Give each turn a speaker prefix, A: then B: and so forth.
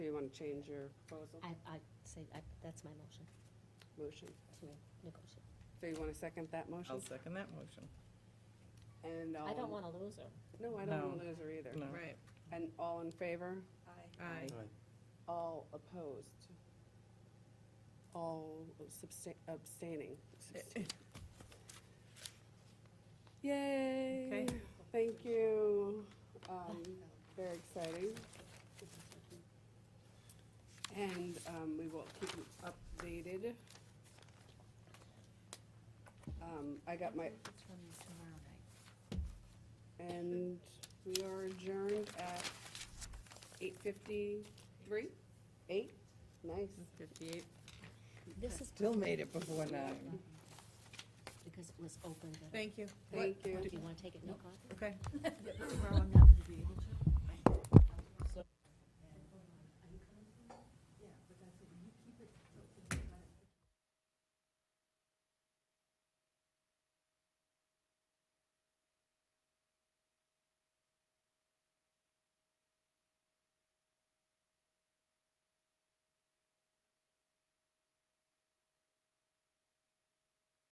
A: change your proposal,
B: I, I say, I, that's my motion
A: motion.
B: to negotiate.
A: So you want to second that motion?
C: I'll second that motion.
A: And all.
B: I don't
A: in-
B: want to lose her.
A: No, I don't want
C: No.
A: to lose her either.
C: No.
D: Right,
A: And all in favor?
D: aye.
A: All opposed? All substa- abstaining? Yay!
C: Okay.
A: Thank you. Um, Very exciting. And um, we will keep you updated. Um, I got my,
E: It's one tomorrow night.
A: and we are adjourned at eight fifty-three? Eight? Nice.
C: Fifty-eight,
B: This is
C: still made it before nine.
B: because it was open. but-
C: Thank you.
A: Thank you.
B: Do you want to take it, no coffee?
C: Okay.
E: Well, I'm not gonna be able to.